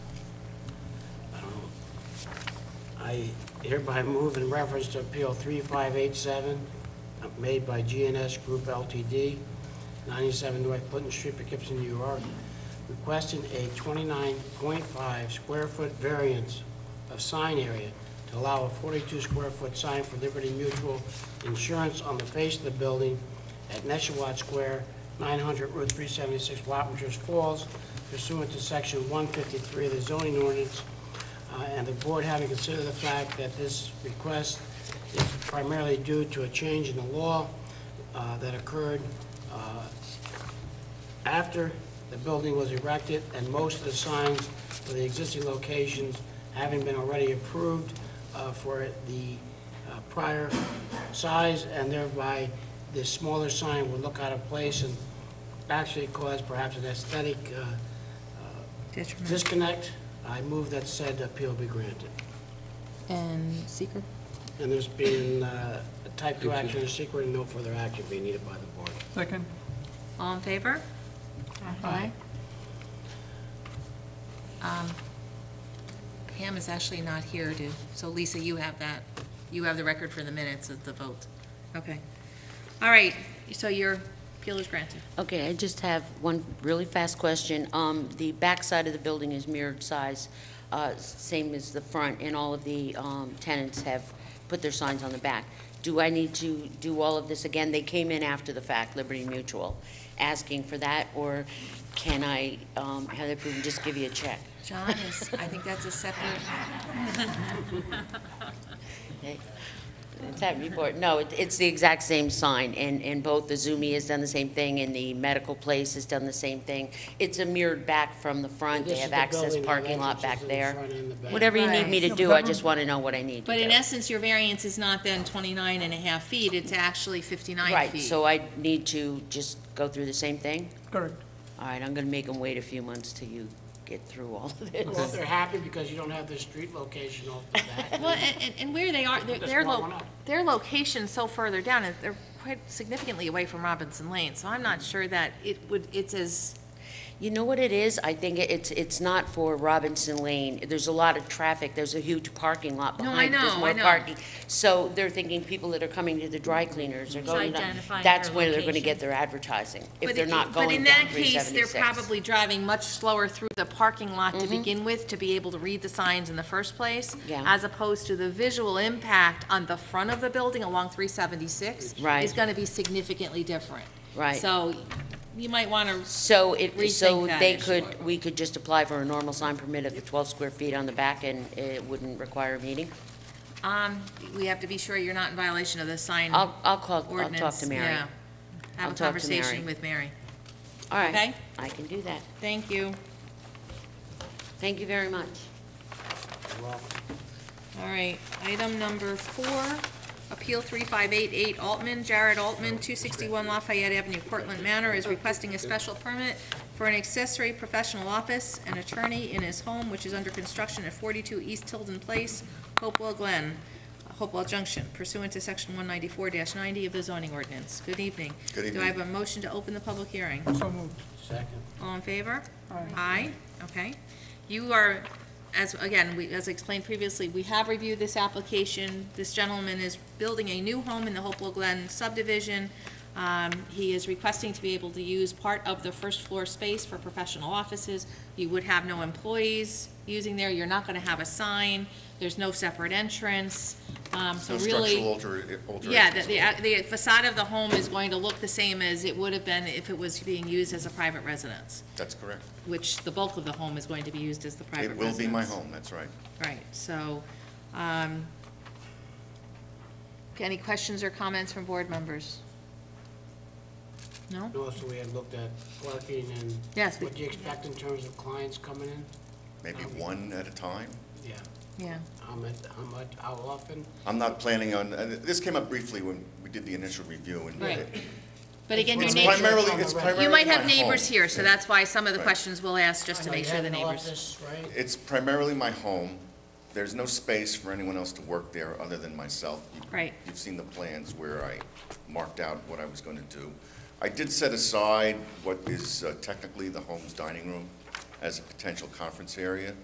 I hereby move in reference to Appeal 3587, uh, made by GNS Group LTD, 97 North Clinton Street, Poughkeepsie, New York, requesting a 29.5 square foot variance of sign area to allow a 42 square foot sign for Liberty Mutual Insurance on the face of the building at Neshawat Square, 900 Route 376, Wappingers Falls, pursuant to Section 153 of the zoning ordinance, uh, and the board having considered the fact that this request is primarily due to a change in the law uh, that occurred uh, after the building was erected, and most of the signs for the existing locations having been already approved uh, for the uh, prior size, and thereby the smaller sign would look out of place and actually cause perhaps an aesthetic uh, Detriment. disconnect. I move that said appeal be granted. And seeker? And there's been uh, a type 2 action, a secret, and no further action being needed by the board. Second. All in favor? Aye. Um, Pam is actually not here to, so Lisa, you have that, you have the record for the minutes of the vote. Okay. All right, so your appeal is granted. Okay, I just have one really fast question. Um, The backside of the building is mirrored size, uh, same as the front, and all of the um, tenants have put their signs on the back. Do I need to do all of this again? They came in after the fact, Liberty Mutual, asking for that, or can I um, have that approved and just give you a check? John is, I think that's a separate, Okay. It's happened before. No, it- it's the exact same sign, and, and both the Zumi has done the same thing, and the medical place has done the same thing. It's a mirrored back from the front, they This is have the access building, parking lot back entrances in the there. front and the back. Whatever you need me to Right. do, I just want to know what I need to but in do. essence, your variance is not then 29 and a half feet, it's actually 59 feet. Right, so I need to just go through the same thing? Correct. All right, I'm going to make them wait a few months till you get through all of this. Well, they're happy because you don't have the street location off the back. Well, and, and- and where they are, their, Just their blow lo- one up. their location's so further down, and they're quite significantly away from Robinson Lane, so I'm not sure that it would, it's as, You know what it is? I think it's, it's not for Robinson Lane. There's a lot of traffic. There's a huge parking lot No, I behind. it. There's know, more I know. parking. So they're thinking people that are coming to the dry cleaners are going, down- identifying that's their where they're gonna location. get their advertising, if But they're it- not going But down in that case, they're 376. probably driving much slower through the parking lot to begin with, to be able to read the signs in the first place. Mm-hmm. Yeah. As opposed to the visual impact on the front of the building along three seventy-six. Right. Is gonna be significantly different. Right. So you might wanna, So it, so Rethink that they issue. could, we could just apply for a normal sign permit of the 12 square feet on the back and it wouldn't require a meeting? Mm-hmm. um, we have to be sure you're not in violation of the sign I'll, I'll call, I'll ordinance. talk to Mary. Yeah. I'll Have a talk to Mary. conversation with Mary. All right, Okay. I can do that. Thank you. Thank you very much. All right, item number four, Appeal 3588 Altman, Jared Altman, 261 Lafayette Avenue, Portland Manor, is requesting a special permit for an accessory professional office and attorney in his home, which is under construction at 42 East Tilden Place, Hopewell Glen, Hopewell Junction, pursuant to Section 194-90 of the zoning ordinance. Good evening. Good Do I evening. have a motion to open the public hearing? So moved. Second. All in favor? Aye. okay. You are, as, again, we, as explained previously, we have reviewed this application. This gentleman is building a new home in the Hopewell Glen subdivision. Um, he is requesting to be able to use part of the first floor space for professional offices. You would have no employees using there, you're not gonna have a sign, there's no separate entrance, um, so No really. structural alter- alterations. Yeah, the- the, the facade of the home is going to look the same as it would have been if it was being used as a private residence, That's correct. which the bulk of the home is going to be used as the private It residence. will be my home, that's right. Right, so, um, any questions or comments from board members? No? Also, we had looked at parking and Yes, we- what do you expect in terms of clients coming in? Maybe one at a time. Yeah, Yeah. how much, how much, how often? I'm not planning on, and this came up briefly when we did the initial review and. Right. But again, your It's neighbor- neighbors, primarily, it's primarily you might have my neighbors home. here, so that's why some of the Right. questions we'll ask, just to Now, make you sure have the an neighbors. office, right? It's primarily my home. There's no space for anyone else to work there other than myself. You- Right. You've seen the plans where I marked out what I was going to do. I did set aside what is uh, technically the home's dining room as a potential conference area.